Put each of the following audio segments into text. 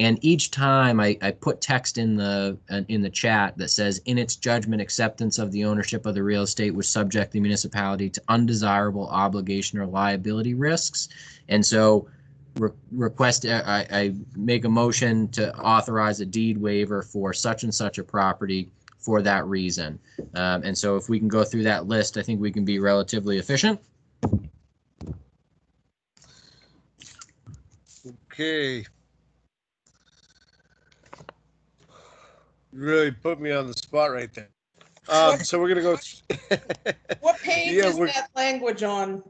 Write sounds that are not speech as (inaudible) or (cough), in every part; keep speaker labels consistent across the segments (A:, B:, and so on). A: And each time I, I put text in the uh, in the chat that says, in its judgment, acceptance of the ownership of the real estate would subject the municipality to undesirable obligation or liability risks. And so re- request, uh, I, I make a motion to authorize a deed waiver for such and such a property for that reason. Um, and so if we can go through that list, I think we can be relatively efficient.
B: Okay. You Really put me on the spot right there. Um, so we're gonna go,
C: What page
B: Yeah,
C: is
B: we're-
C: that language on?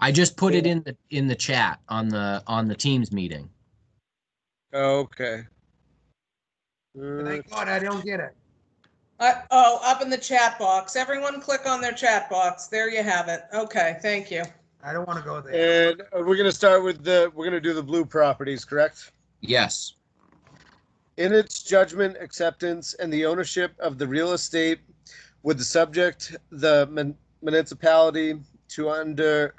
A: I just put it in the, in the chat on the, on the Teams meeting.
B: oh, (laughs) okay. Uh,
D: Thank God, I don't get it.
C: Uh, oh, up in the chat box. Everyone click on their chat box. There you have it. Okay, thank you.
D: I don't want to go there.
B: And uh, we're gonna start with the, we're gonna do the blue properties, correct?
A: Yes.
B: In its judgment, acceptance, and the ownership of the real estate would the subject the mun- municipality to under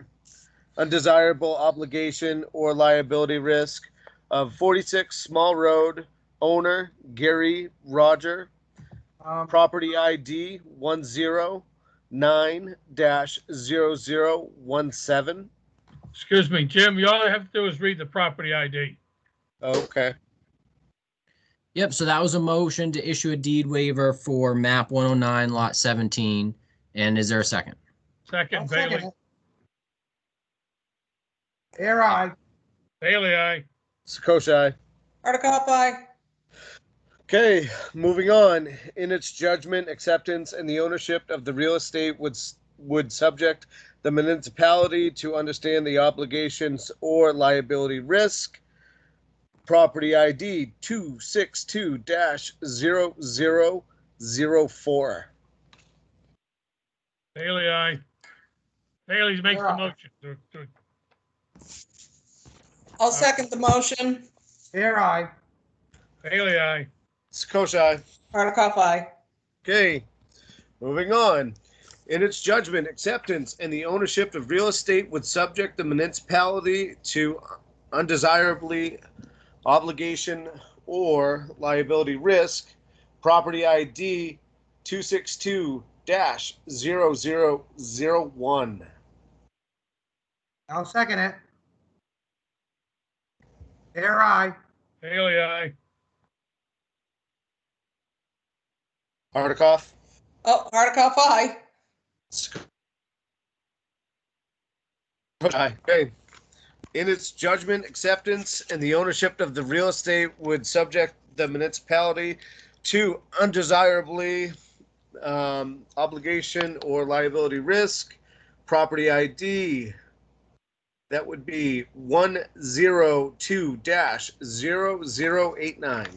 B: undesirable obligation or liability risk of 46 Small Road, owner Gary Roger,
D: Um,
B: property ID 109-0017.
E: Excuse me, Jim, you all I have to do is read the property ID.
B: Okay.
A: Yep, so that was a motion to issue a deed waiver for map one oh nine lot seventeen. And is there a second?
E: Second,
D: I'll second
E: Bailey.
D: it. Air I,
E: Bailey, aye.
B: Sakoshai.
C: Hardikoff, aye.
B: Okay, moving on. In its judgment, acceptance, and the ownership of the real estate would, s- would subject the municipality to understand the obligations or liability risk. Property ID two six two dash zero zero zero four.
E: Bailey, aye. Bailey makes the
D: Yeah.
E: motion. to- to-
B: Uh.
C: I'll second the motion.
D: air I,
E: Bailey, aye.
B: Sakoshai.
C: Hardikoff, aye.
B: Okay, moving on. In its judgment, acceptance and the ownership of real estate would subject the municipality to undesirably obligation or liability risk. Property ID two six two dash zero zero zero one.
D: I'll second it. Air I,
E: Bailey, aye.
B: Hardikoff?
C: Oh, Hardikoff, aye.
B: Okay. uh, In its judgment, acceptance, and the ownership of the real estate would subject the municipality to undesirably um, obligation or liability risk, property ID. That would be one zero two dash zero zero eight nine.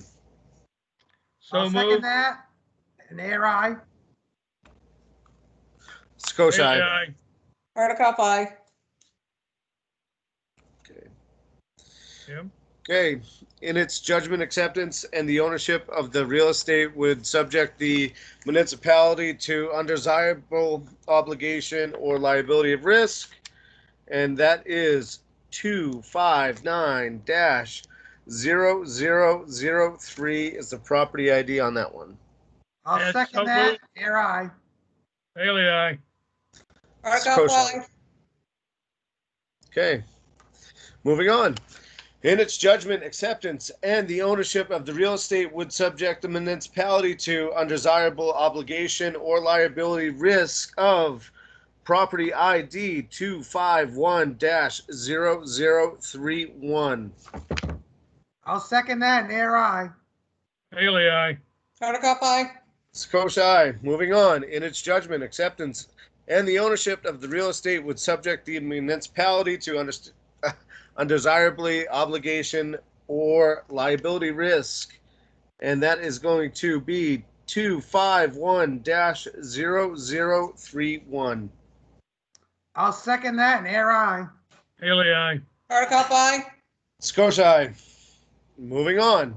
E: So
D: I'll second
E: moved.
D: that. And air I,
E: Bailey,
B: Scotia.
E: aye.
C: Hardikoff, aye.
E: Jim,
B: Okay, in its judgment, acceptance, and the ownership of the real estate would subject the municipality to undesirable obligation or liability of risk. And that is two five nine dash zero zero zero three is the property ID on that one.
D: I'll
E: Yes,
D: second
E: so
D: that.
E: moved.
D: Air I,
E: Bailey, aye.
C: Hardikoff,
B: Sakoshai.
C: aye.
B: Okay. Moving on. In its judgment, acceptance, and the ownership of the real estate would subject the municipality to undesirable obligation or liability risk of property ID two five one dash zero zero three one.
D: I'll second that and air I,
E: Bailey, aye.
C: Hardikoff, aye.
B: Sakoshai, moving on, in its judgment, acceptance, and the ownership of the real estate would subject the municipality to underst- (laughs) undesirably obligation or liability risk. And that is going to be two five one dash zero zero three one.
D: I'll second that and air I,
E: Bailey, aye.
C: Hardikoff, aye.
B: Scotia, moving on.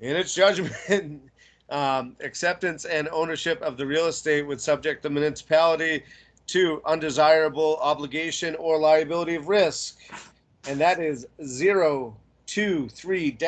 B: In its judgment, (laughs) um, acceptance and ownership of the real estate would subject the municipality to undesirable obligation or liability of risk. And that is zero, two, three, dash.